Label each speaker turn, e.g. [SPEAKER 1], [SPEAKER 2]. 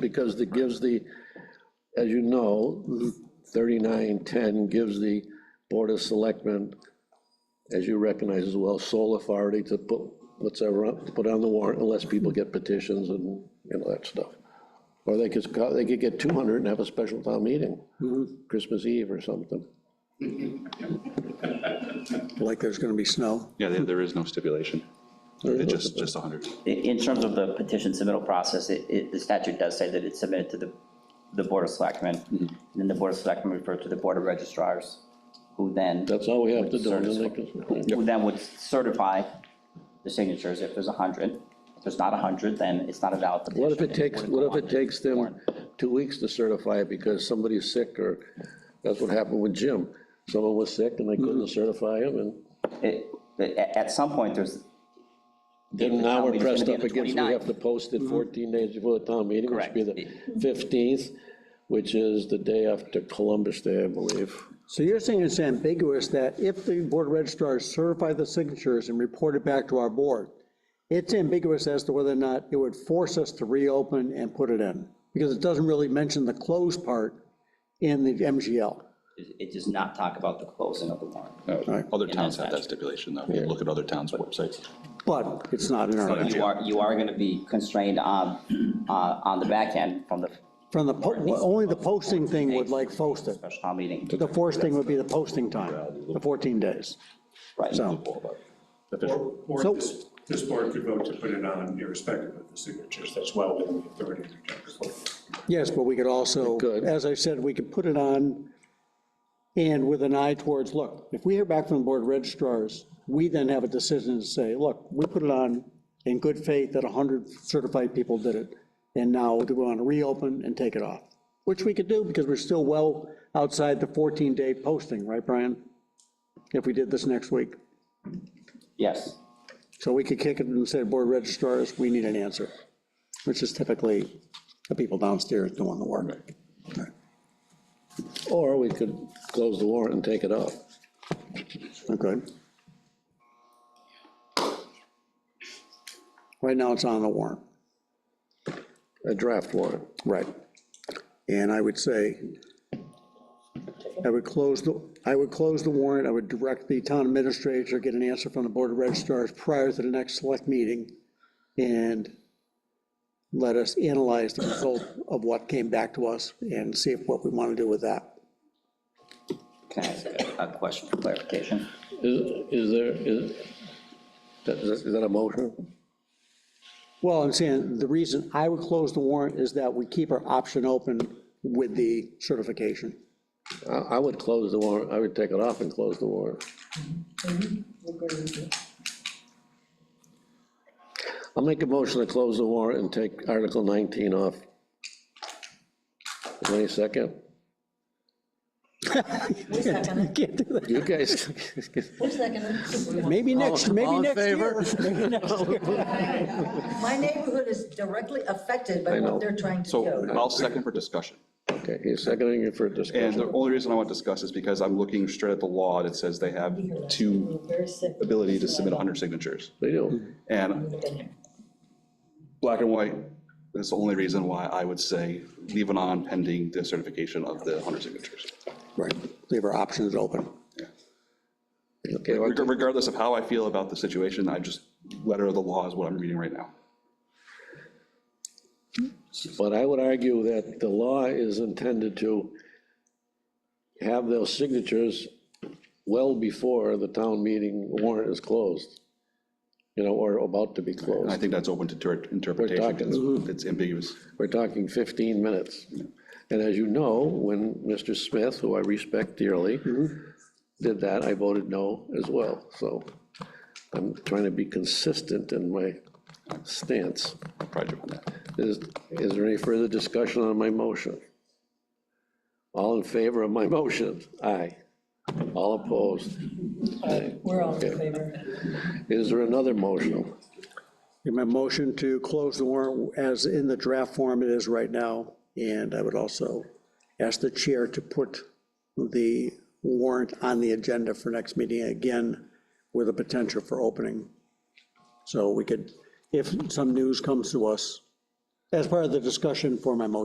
[SPEAKER 1] because it gives the, as you know, 3910 gives the Board of Selectmen, as you recognize as well, sole authority to put whatever, on- to put on the warrant unless people get petitions and, you know, that stuff. Or they could, sc- they could get 200 and have a special town meeting, Christmas Eve or something.
[SPEAKER 2] like there's gonna be snow.
[SPEAKER 3] Yeah, there, there is no stipulation. It's just, just 100.
[SPEAKER 4] In, in terms of the petition submittal process, it, it, the statute does say that it's submitted to the, the Board of Selectmen. And
[SPEAKER 1] Mm-hmm.
[SPEAKER 4] then the Board of Selectmen refer to the Board of Registrars, who then,
[SPEAKER 1] That's all we have to do. and then they can-
[SPEAKER 4] who then would certify the signatures if there's a hundred. If there's not a hundred, then it's not a valid petition.
[SPEAKER 1] What if it takes,
[SPEAKER 4] wouldn't
[SPEAKER 1] what
[SPEAKER 4] go
[SPEAKER 1] if
[SPEAKER 4] on
[SPEAKER 1] it takes
[SPEAKER 4] the
[SPEAKER 1] them
[SPEAKER 4] warrant.
[SPEAKER 1] two weeks to certify it because somebody's sick or, that's what happened with Jim. Someone was sick and they couldn't certify him and
[SPEAKER 4] It- but a- at some point, there's,
[SPEAKER 1] then
[SPEAKER 4] the
[SPEAKER 1] now
[SPEAKER 4] town
[SPEAKER 1] we're
[SPEAKER 4] meeting's gonna
[SPEAKER 1] pressed
[SPEAKER 4] be on
[SPEAKER 1] up
[SPEAKER 4] the
[SPEAKER 1] against, we have
[SPEAKER 4] 29th.
[SPEAKER 1] to post it 14 days before the town meeting, which would be the
[SPEAKER 4] Correct.
[SPEAKER 1] 15th, which is the day after Columbus Day, I believe.
[SPEAKER 2] So you're saying it's ambiguous that if the board of registrars certify the signatures and report it back to our board, it's ambiguous as to whether or not it would force us to reopen and put it in, because it doesn't really mention the close part in the MGL.
[SPEAKER 4] it it does not talk about the closing of the warrant.
[SPEAKER 3] No, Other towns have that
[SPEAKER 4] statute.
[SPEAKER 3] stipulation, though. You Look at other towns' websites.
[SPEAKER 2] But it's not in our,
[SPEAKER 4] But you are, you are gonna be constrained on, uh, on the back end from the
[SPEAKER 2] from the, po- only the posting thing would like post it.
[SPEAKER 4] special town meeting.
[SPEAKER 2] The forced thing would be the posting time, the 14 days.
[SPEAKER 4] Right.
[SPEAKER 2] So,
[SPEAKER 5] Or, or
[SPEAKER 2] So-
[SPEAKER 5] this, this board could vote to put it on irrespective of the signatures, that's well within the authority of the general clerk.
[SPEAKER 2] yes, but we could also,
[SPEAKER 1] could.
[SPEAKER 2] as I said, we could put it on and with an eye towards, look, if we hear back from the board of registrars, we then have a decision to say, look, we put it on in good faith that 100 certified people did it. And now we want to reopen and take it off, which we could do because we're still well outside the 14-day posting, right, Brian? If we did this next week.
[SPEAKER 4] Yes.
[SPEAKER 2] So we could kick it and say, board registrars, we need an answer, which is typically the people downstairs doing the work.
[SPEAKER 1] Or we could close the warrant and take it off.
[SPEAKER 2] Okay. Right now, it's on the warrant.
[SPEAKER 1] A draft warrant.
[SPEAKER 2] Right. And I would say, I would close the, I would close the warrant, I would direct the town administrator, get an answer from the board of registrars prior to the next select meeting, and let us analyze the result of what came back to us and see if what we want to do with that.
[SPEAKER 4] Can I ask a- a question for clarification?
[SPEAKER 1] Is, is there, is, that- is that a motion?
[SPEAKER 2] Well, I'm saying, the reason I would close the warrant is that we keep our option open with the certification.
[SPEAKER 1] I, I would close the warrant, I would take it off and close the warrant. I'll make a motion to close the warrant and take Article 19 off. Any second?
[SPEAKER 6] Who's second?
[SPEAKER 2] Can't do that.
[SPEAKER 1] You guys,
[SPEAKER 6] Who's second?
[SPEAKER 2] Maybe next, maybe
[SPEAKER 1] all in
[SPEAKER 2] next year.
[SPEAKER 6] My neighborhood is directly affected by
[SPEAKER 1] know.
[SPEAKER 6] what they're trying to
[SPEAKER 3] So
[SPEAKER 6] do.
[SPEAKER 3] I'll second for discussion.
[SPEAKER 1] okay, you're seconding it for
[SPEAKER 3] And
[SPEAKER 1] discussion.
[SPEAKER 3] the only reason I want to discuss is because I'm looking straight at the law that says they have two
[SPEAKER 6] Very sick.
[SPEAKER 3] ability to submit 100 signatures.
[SPEAKER 1] They do.
[SPEAKER 3] And black and white, that's the only reason why I would say leave it on pending the certification of the 100 signatures.
[SPEAKER 2] Right, leave our options open.
[SPEAKER 1] Okay, well,
[SPEAKER 3] Reg- Regardless of how I feel about the situation, I just, letter of the law is what I'm reading right now.
[SPEAKER 1] But I would argue that the law is intended to have those signatures well before the town meeting warrant is closed, you know, or about to be
[SPEAKER 3] And I
[SPEAKER 1] closed.
[SPEAKER 3] think that's open to ter- interpretation,
[SPEAKER 1] talking-
[SPEAKER 3] because it's ambiguous.
[SPEAKER 1] We're talking 15 minutes. And as you know, when Mr. Smith, who I respect dearly, did that, I voted no as well. So I'm trying to be consistent in my stance.
[SPEAKER 3] Project on that.
[SPEAKER 1] Is, is there any further discussion on my motion? All in favor of my motion? Aye. All opposed? Aye.
[SPEAKER 6] We're all in favor.
[SPEAKER 1] Is there another motion?
[SPEAKER 2] And My motion to close the warrant as in the draft form it is right now, and I would also ask the chair to put the warrant on the agenda for next meeting again with a potential for opening. So we could, if some news comes to us as part of the discussion for my motion.